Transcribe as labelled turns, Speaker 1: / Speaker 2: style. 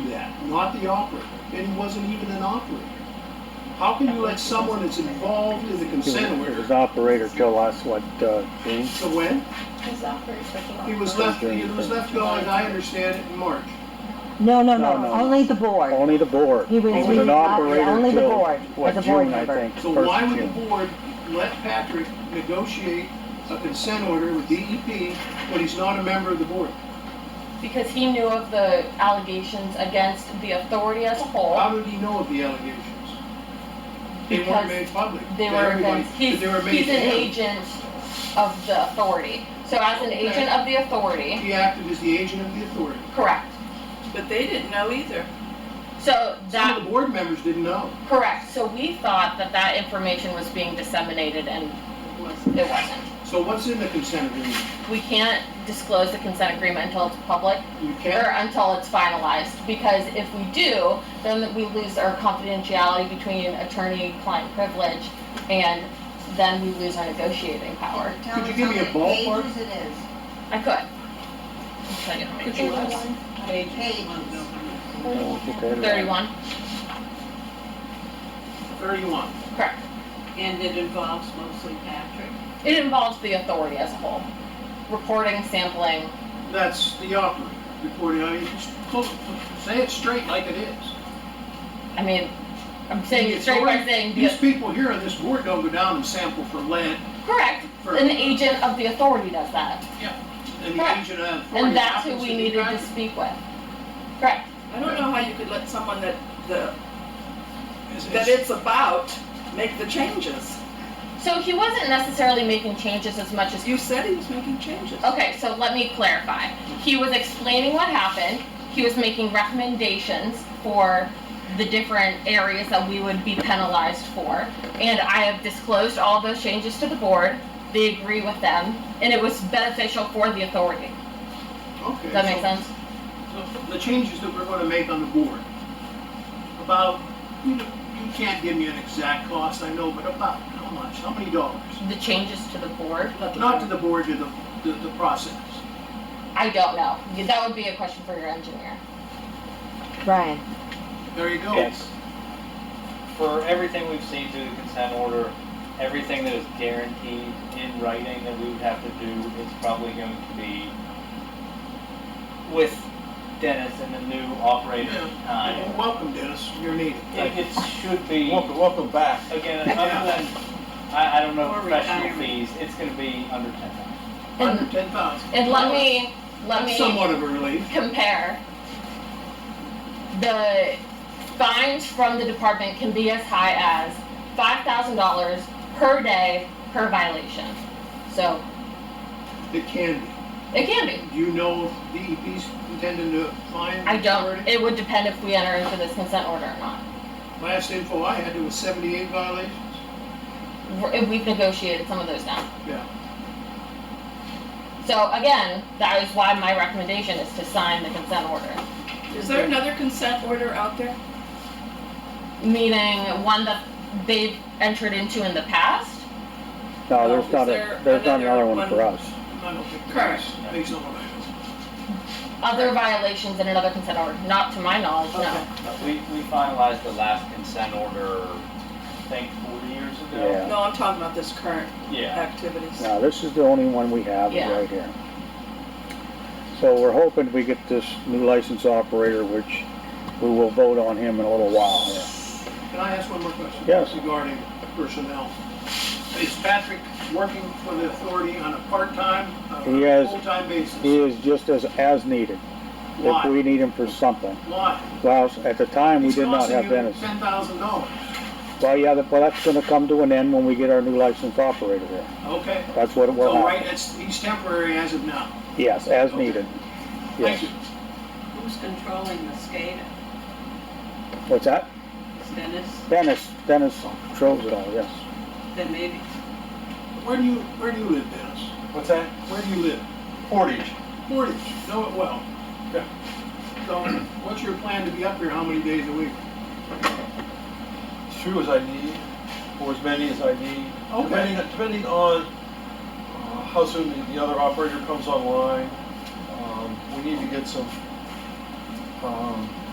Speaker 1: do that, not the operator, and he wasn't even an operator. How can you let someone that's involved in the
Speaker 2: He was-
Speaker 1: consent
Speaker 2: he was
Speaker 1: order,
Speaker 2: operator till us, what, uh, June?
Speaker 1: so when,
Speaker 3: His operator took a lot
Speaker 1: he was
Speaker 3: of money.
Speaker 1: left, he was left gone, as I understand it, in March.
Speaker 4: No, no,
Speaker 2: No,
Speaker 4: no,
Speaker 2: no.
Speaker 4: only the board.
Speaker 2: Only the board.
Speaker 4: He was- he
Speaker 2: an
Speaker 4: was not-
Speaker 2: operator
Speaker 4: only the
Speaker 2: till,
Speaker 4: board,
Speaker 2: what,
Speaker 4: as a board
Speaker 2: June, I
Speaker 4: member.
Speaker 2: think,
Speaker 1: So
Speaker 2: first
Speaker 1: why would the
Speaker 2: June.
Speaker 1: board let Patrick negotiate a consent order with DEP when he's not a member of the board?
Speaker 3: Because he knew of the allegations against the authority as a
Speaker 1: How
Speaker 3: whole.
Speaker 1: did he know of the allegations? They
Speaker 3: Because
Speaker 1: weren't made public.
Speaker 3: They
Speaker 1: to
Speaker 3: were,
Speaker 1: everybody,
Speaker 3: against-
Speaker 1: but
Speaker 3: he's,
Speaker 1: they were made
Speaker 3: he's
Speaker 1: to
Speaker 3: an
Speaker 1: him.
Speaker 3: agent of the authority. So as an
Speaker 5: Okay.
Speaker 3: agent of the authority,
Speaker 1: He acted as the agent of the authority.
Speaker 3: correct.
Speaker 5: But they didn't know either.
Speaker 3: So
Speaker 1: Some of
Speaker 3: that,
Speaker 1: the board members didn't know.
Speaker 3: correct, so we thought that that information was being disseminated and it wasn't.
Speaker 1: So what's in the consent agreement?
Speaker 3: We can't disclose the consent agreement until it's public
Speaker 1: You
Speaker 3: or
Speaker 1: can't,
Speaker 3: until it's finalized, because if we do, then we lose our confidentiality between attorney-client privilege, and then we lose our negotiating power.
Speaker 1: Could you give me a ballpark?
Speaker 6: Pages it is.
Speaker 3: I could. I'll tell you how many.
Speaker 5: Could you ask?
Speaker 6: Pages.
Speaker 2: No, it's okay.
Speaker 3: Thirty-one,
Speaker 1: thirty-one.
Speaker 3: correct.
Speaker 5: And it involves mostly Patrick.
Speaker 3: It involves the authority as a whole, reporting, sampling,
Speaker 1: That's the operator reporting, I, just close- say it straight like it is.
Speaker 3: I mean, I'm saying it straight by saying
Speaker 1: These
Speaker 3: the,
Speaker 1: people here on this board don't go down and sample for lead,
Speaker 3: correct,
Speaker 1: for,
Speaker 3: an
Speaker 1: and
Speaker 3: agent of the authority does that,
Speaker 1: the agent of authority.
Speaker 3: and that's who
Speaker 1: happens
Speaker 3: we
Speaker 1: to be
Speaker 3: needed to
Speaker 1: Patrick.
Speaker 3: speak with. Correct.
Speaker 5: I don't know how you could let someone that, the,
Speaker 1: It's-
Speaker 5: that
Speaker 1: it's-
Speaker 5: it's about make the changes.
Speaker 3: So he wasn't necessarily making changes as much as
Speaker 5: You said he was making changes.
Speaker 3: Okay, so let me clarify. He was explaining what happened. He was making recommendations for the different areas that we would be penalized for. And I have disclosed all those changes to the board. They agree with them, and it was beneficial for the authority.
Speaker 1: Okay.
Speaker 3: Does that
Speaker 1: so-
Speaker 3: make sense?
Speaker 1: so The changes that we're gonna make on the board, about, you know, you can't give me an exact cost, I know, but about how much, how many dollars?
Speaker 3: The changes to the board?
Speaker 1: Not to the board, to the, the, the process.
Speaker 3: I don't know. That would be a question for your engineer.
Speaker 4: Brian,
Speaker 1: There you go.
Speaker 7: It's, for everything we've seen through the consent order, everything that is guaranteed in writing that we would have to do is probably going to be with Dennis and the new operator at the
Speaker 1: Well,
Speaker 7: time.
Speaker 1: Welcome, Dennis, you're needed.
Speaker 7: Like, it should be,
Speaker 8: Welcome, welcome back.
Speaker 7: again, other than, I, I don't know,
Speaker 5: Or
Speaker 7: professional
Speaker 5: retirement.
Speaker 7: fees, it's gonna be under ten thousand.
Speaker 1: Under ten thousand.
Speaker 3: And let me, let me.
Speaker 1: That's somewhat of a relief.
Speaker 3: compare, the fines from the department can be as high as five thousand dollars per day per violation. So
Speaker 1: It can be.
Speaker 3: it can be.
Speaker 1: Do you know if DEP's intending to fine?
Speaker 3: I don't.
Speaker 1: already?
Speaker 3: It would depend if we enter into this consent order or not.
Speaker 1: Last info I had, it was seventy-eight violations.
Speaker 3: We're- and We've negotiated some of those down.
Speaker 1: Yeah.
Speaker 3: So again, that is why my recommendation is to sign the consent order,
Speaker 5: Is there another consent order out there?
Speaker 3: meaning one that they've entered into in the past.
Speaker 2: No, there's
Speaker 5: Is
Speaker 2: not
Speaker 5: there
Speaker 2: a, there's not
Speaker 5: another
Speaker 2: another one
Speaker 5: one?
Speaker 2: for us.
Speaker 1: I don't think.
Speaker 5: Correct.
Speaker 1: Based on what I heard.
Speaker 3: Other violations in another consent order, not to my knowledge, no.
Speaker 5: Okay.
Speaker 7: We, we finalized the last consent order, I think, four years ago.
Speaker 2: Yeah.
Speaker 5: No, I'm talking about this current
Speaker 7: Yeah.
Speaker 5: activities.
Speaker 2: No, this is the only one we have
Speaker 3: Yeah.
Speaker 2: right here. So we're hoping we get this new license operator, which we will vote on him in a little while here.
Speaker 1: Can I ask one more question?
Speaker 2: Yes.
Speaker 1: Regarding personnel. Is Patrick working for the authority on a part-time, uh,
Speaker 2: He has-
Speaker 1: full-time basis?
Speaker 2: He is just as, as needed, if
Speaker 1: Why?
Speaker 2: we need him for something.
Speaker 1: Why?
Speaker 2: Well, at the time, we did not have Dennis.
Speaker 1: Ten thousand dollars.
Speaker 2: Well, yeah, that- well, that's gonna come to an end when we get our new licensed operator here.
Speaker 1: Okay.
Speaker 2: That's what it will
Speaker 1: So, right,
Speaker 2: happen.
Speaker 1: it's, he's temporary as of now.
Speaker 2: Yes, as
Speaker 1: Okay.
Speaker 2: needed.
Speaker 1: Thank
Speaker 2: Yes.
Speaker 1: you.
Speaker 9: Who's controlling the SCADA?
Speaker 2: What's that?
Speaker 9: Is Dennis?
Speaker 2: Dennis, Dennis controls it all, yes.
Speaker 9: Then maybe
Speaker 1: Where do you, where do you live, Dennis?
Speaker 8: What's that?
Speaker 1: Where do you live?
Speaker 8: Portage.
Speaker 1: Portage, know it well.
Speaker 8: Yeah.
Speaker 1: So, what's your plan to be up here, how many days a week?
Speaker 8: As few as I need, or as many as I need.
Speaker 1: Okay.
Speaker 8: Depending, depending on uh, how soon the- the other operator comes online. Um, We need to get some um,